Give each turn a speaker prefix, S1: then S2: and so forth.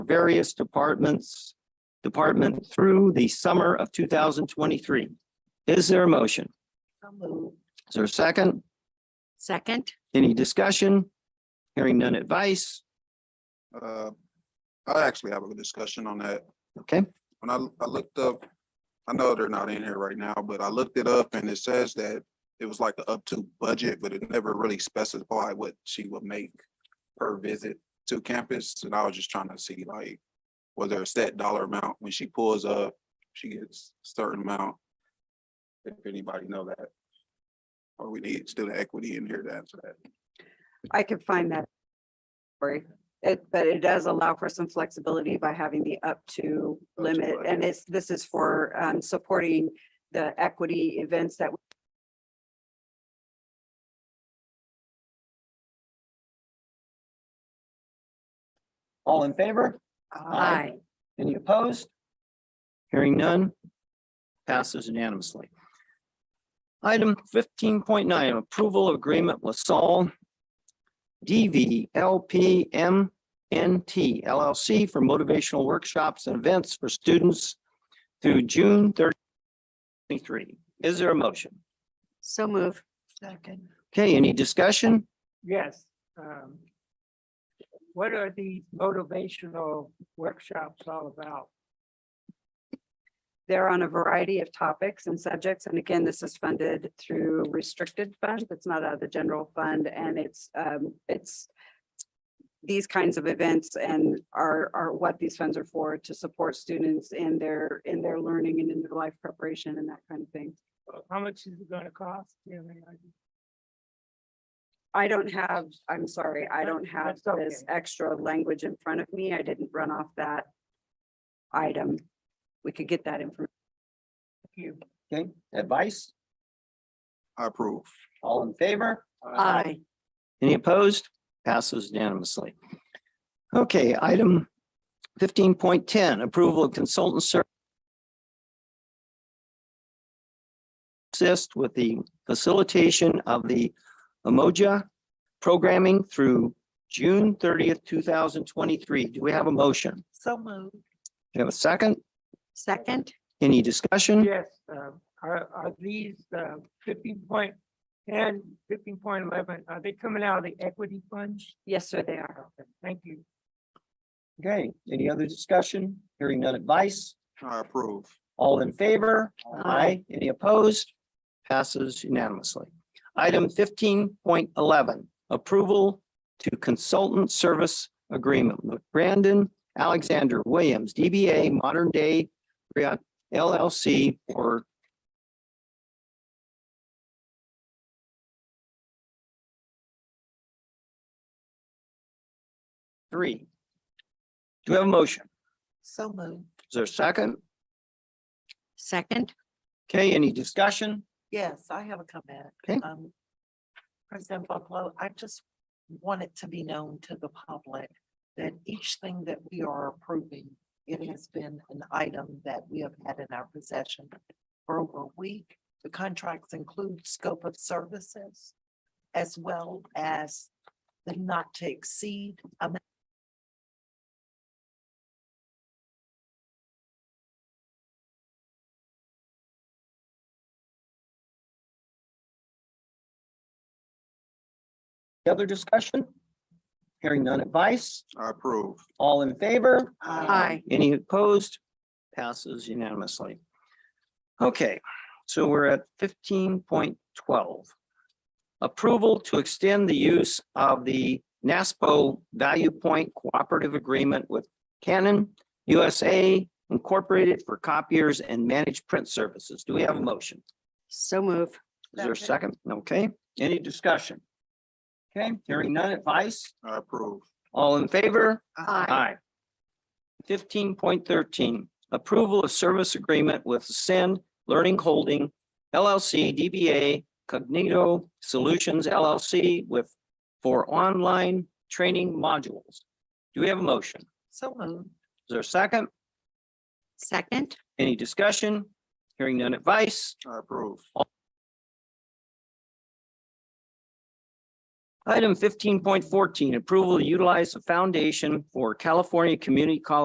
S1: various departments, department through the summer of two thousand twenty-three. Is there a motion? Is there a second?
S2: Second,
S1: Any discussion? Hearing none advice?
S3: Uh, I actually have a discussion on that.
S1: Okay.
S3: When I, I looked up, I know they're not in here right now, but I looked it up and it says that it was like the up to budget, but it never really specified what she would make per visit to campus. And I was just trying to see like, was there a set dollar amount when she pulls up, she gets a certain amount? If anybody know that. Or we need student equity in here to answer that.
S4: I could find that. Sorry, it, but it does allow for some flexibility by having the up to
S3: to
S4: limit,
S3: budget.
S4: and it's, this is for um supporting the equity events that.
S1: All in favor?
S2: aye.
S1: Any opposed? Hearing none, passes unanimously. Item fifteen point nine, approval of agreement with Saul DVLPMNT LLC for motivational workshops and events for students through June 30, 23. Is there a motion?
S2: So move.
S5: Second.
S1: Okay, any discussion?
S5: Yes. um, What are these motivational workshops all about?
S4: They're on a variety of topics and subjects, and again, this is funded through restricted funds, it's not out of the general fund, and it's um, it's. These kinds of events and are are what these funds are for, to support students in their, in their learning and in their life preparation and that kind of thing.
S5: Uh, How much is it gonna cost? Do you have any idea?
S4: I don't have, I'm sorry, I don't have
S5: That's okay.
S4: this extra language in front of me. I didn't run off that item. We could get that information.
S5: You-
S1: Okay, advice?
S3: I approve.
S1: All in favor?
S2: Aye.
S1: Any opposed? Passes unanimously. Okay, item fifteen point ten, approval of consultant ser- assist with the facilitation of the Emoja programming through June thirtieth, two thousand twenty-three. Do we have a motion? Do
S5: So moved.
S1: we have a second?
S2: Second,
S1: Any discussion?
S5: Yes, um, are, are these uh, fifteen point and fifteen point eleven, are they coming out of the equity funds?
S4: Yes, sir, they are.
S5: Okay, Thank you.
S1: Okay, any other discussion? Hearing none advice?
S3: I approve.
S1: All in favor?
S5: Aye.
S1: Aye. Any opposed? Passes unanimously. Item fifteen point eleven, approval to consultant service agreement with Brandon Alexander Williams, DBA Modern Day Griot LLC or three. Do we have a motion?
S5: So moved.
S1: Is there a second?
S2: second,
S1: Okay, any discussion?
S6: Yes, I have a comment.
S1: Okay.
S6: Um, President Buffalo, I just want it to be known to the public that each thing that we are approving, it has been an item that we have had in our possession for over a week. The contracts include scope of services as well as the not to exceed amount.
S1: Any Other discussion? Hearing none advice,
S3: I approve.
S1: all in favor?
S6: Uh,
S4: Uh,
S2: aye.
S1: Any opposed? Passes unanimously. Okay, so we're at fifteen point twelve. Approval to extend the use of the NASPO Value Point Cooperative Agreement with Canon USA Incorporated for copiers and managed print services. Do we have a motion?
S2: So move.
S1: Is there a second? Okay, any discussion? Okay, hearing none advice,
S3: I approve.
S1: all in favor?
S2: Aye.
S1: Aye. Fifteen point thirteen, approval of service agreement with Ascend Learning Holding LLC DBA Cognito Solutions LLC with for online training modules. Do we have a motion? Is
S6: So moved.
S1: there a second?
S2: Second,
S1: Any discussion? Hearing none advice?
S3: I approve.
S1: Item fifteen point fourteen, approval to utilize the foundation for California Community College